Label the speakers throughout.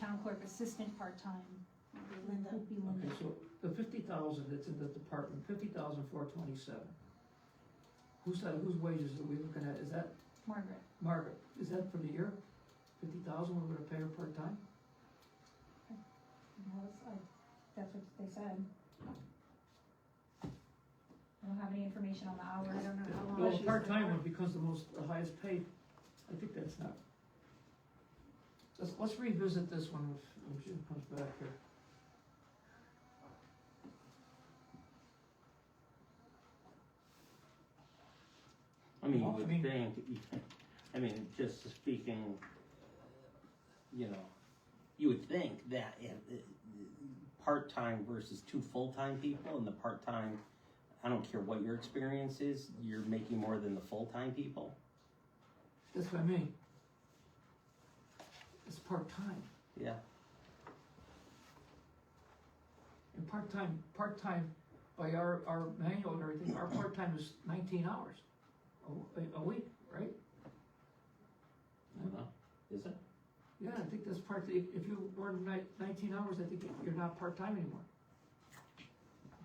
Speaker 1: town clerk assistant part-time,
Speaker 2: Linda,
Speaker 1: would be Linda.
Speaker 3: Okay, so the fifty thousand that's in the department, fifty thousand four twenty-seven. Who's that, whose wages are we looking at? Is that
Speaker 1: Margaret,
Speaker 3: Margaret? Is that for the year? Fifty thousand we're gonna pay her part-time?
Speaker 1: that was, I, that's what they said. I don't have any information on the
Speaker 2: I
Speaker 1: hours.
Speaker 2: don't know how long.
Speaker 3: Well,
Speaker 2: she's
Speaker 3: a
Speaker 2: been
Speaker 3: part-time
Speaker 2: working.
Speaker 3: one becomes the most, the highest paid. I think that's not. Let's, let's revisit this one if- when she comes back here.
Speaker 4: I mean, you
Speaker 3: Well, I mean-
Speaker 4: would think, I mean, just speaking, you know, you would think that if, uh, part-time versus two full-time people, and the part-time, I don't care what your experience is, you're making more than the full-time people.
Speaker 3: That's what I mean. It's part-time.
Speaker 4: Yeah,
Speaker 3: And part-time, part-time, by our, our manual and everything, our part-time is nineteen hours a, a week, right?
Speaker 4: I don't know, is it?
Speaker 3: Yeah, I think that's part, if, if you work ni- nineteen hours, I think you're not part-time anymore.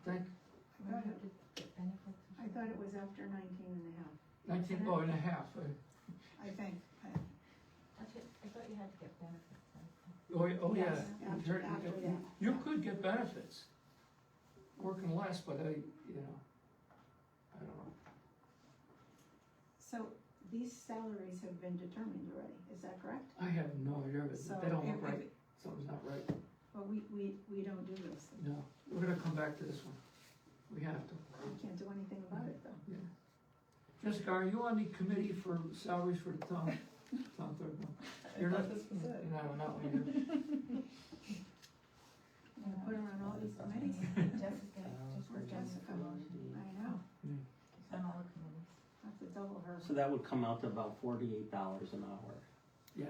Speaker 3: Think,
Speaker 2: I thought it- I thought it was after nineteen and a half,
Speaker 3: nineteen, oh, and a half, uh,
Speaker 2: I think.
Speaker 5: I thought I thought you had to get benefits, right?
Speaker 3: oh, yeah, oh, yeah.
Speaker 2: Yes, After, after that.
Speaker 3: You could get benefits, working less, but I, you know, I don't know.
Speaker 2: So these salaries have been determined already, is that correct?
Speaker 3: I have no idea,
Speaker 2: So
Speaker 3: but they don't
Speaker 2: if-
Speaker 3: look right, something's not right.
Speaker 2: But we, we, we don't do this,
Speaker 3: No, we're gonna come back to this one. We have to.
Speaker 2: we can't do anything about it though.
Speaker 3: Jessica, are you on the committee for salaries for the town, town clerk? No. You're not, you're not on that one
Speaker 2: I'm gonna put her on all these committees,
Speaker 5: Jessica, just
Speaker 2: for Jessica, I know,
Speaker 3: Hmm.
Speaker 5: she's on all the committees.
Speaker 2: have to double her.
Speaker 4: So that would come out to about forty-eight dollars an hour,
Speaker 3: either.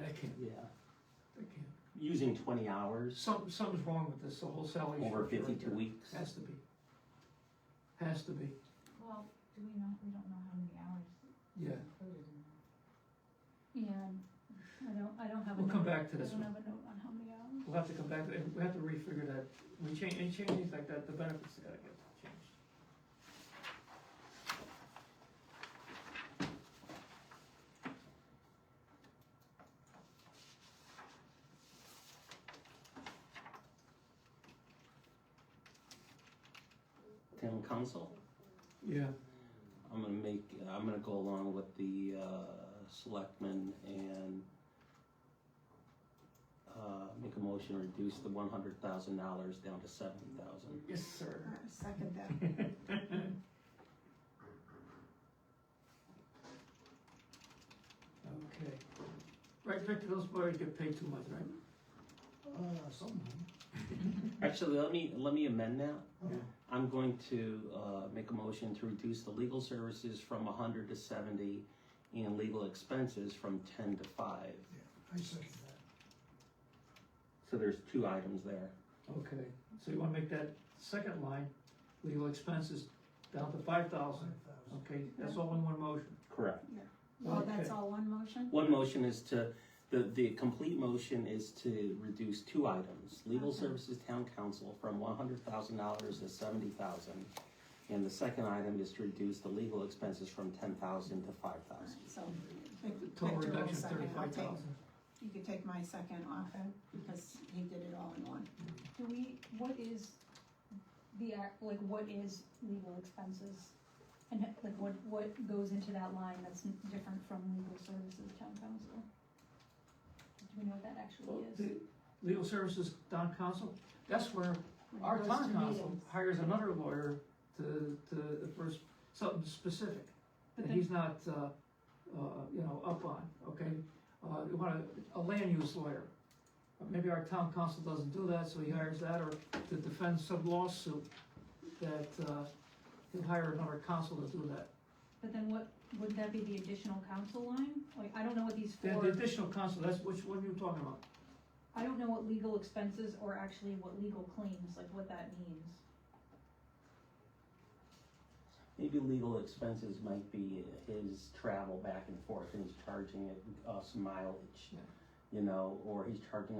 Speaker 3: Yeah, I can't,
Speaker 4: yeah,
Speaker 3: I can't.
Speaker 4: using twenty hours
Speaker 3: Some, something's wrong with this, the whole salary.
Speaker 4: over
Speaker 3: structure right
Speaker 4: fifty-two
Speaker 3: there.
Speaker 4: weeks.
Speaker 3: Has to be. Has to be,
Speaker 5: Well, do we know, we don't know how many hours
Speaker 3: yeah.
Speaker 5: included in that.
Speaker 1: Yeah, I don't, I don't have a.
Speaker 3: We'll come
Speaker 1: note.
Speaker 3: back to this
Speaker 1: I
Speaker 3: one.
Speaker 1: don't have a note on how many hours.
Speaker 3: We'll have to come back, to we have to refigure that. We change, any changes like that, the benefits gotta get changed.
Speaker 4: Town council?
Speaker 3: Yeah.
Speaker 4: I'm gonna make, I'm gonna go along with the, uh, selectmen and, uh, make a motion, to reduce the one hundred thousand dollars down to seventy thousand.
Speaker 3: Yes, sir.
Speaker 2: I Second that,
Speaker 3: Okay. Right, Victor, those boys get paid too much, right?
Speaker 4: Uh, something. Actually, let me, let me amend that.
Speaker 3: Yeah.
Speaker 4: I'm going to, uh, make a motion to reduce the legal services from a hundred to seventy and legal expenses from ten to five.
Speaker 6: I second that.
Speaker 4: So there's two items there.
Speaker 3: Okay, so you wanna make that second line, legal expenses down to five thousand, okay, that's all in one motion.
Speaker 4: Correct.
Speaker 2: well, that's
Speaker 3: Okay.
Speaker 2: all one motion?
Speaker 4: One motion is to, the, the complete motion is to reduce two items, legal
Speaker 2: Okay.
Speaker 4: services town council from one hundred thousand dollars to seventy thousand. And the second item is to reduce the legal expenses from ten thousand to five thousand.
Speaker 2: So.
Speaker 3: Total
Speaker 2: Victor will
Speaker 3: reduction
Speaker 2: second. I'll
Speaker 3: thirty-five
Speaker 2: take-
Speaker 3: thousand.
Speaker 2: You could take my second off, because he did it all in one.
Speaker 1: Do we, what is the, act? like, what is legal expenses? And like, what, what goes into that line that's n- different from legal services town council? Do we know what that actually is?
Speaker 3: Legal services, town council, that's where
Speaker 2: When he
Speaker 3: Our
Speaker 2: goes
Speaker 3: town
Speaker 2: to
Speaker 3: council
Speaker 2: meetings.
Speaker 3: hires another lawyer to, to, for s- something specific
Speaker 1: But
Speaker 3: that
Speaker 1: then-
Speaker 3: he's not, uh, uh, you know, up on, okay? Uh, you want a, a land use lawyer. Uh, Maybe our town council doesn't do that, so he hires that, or to defend some lawsuit that, uh, he'll hire another council to do that.
Speaker 1: But then what, would that be the additional council line? Like, I don't know what these
Speaker 3: The
Speaker 1: four.
Speaker 3: the additional council, that's, which, what are you talking about?
Speaker 1: I don't know what legal expenses or actually what legal claims, like what that means.
Speaker 4: Maybe legal expenses might be his travel back and forth and he's charging it us mileage.
Speaker 3: Yeah.
Speaker 4: You know, or he's charging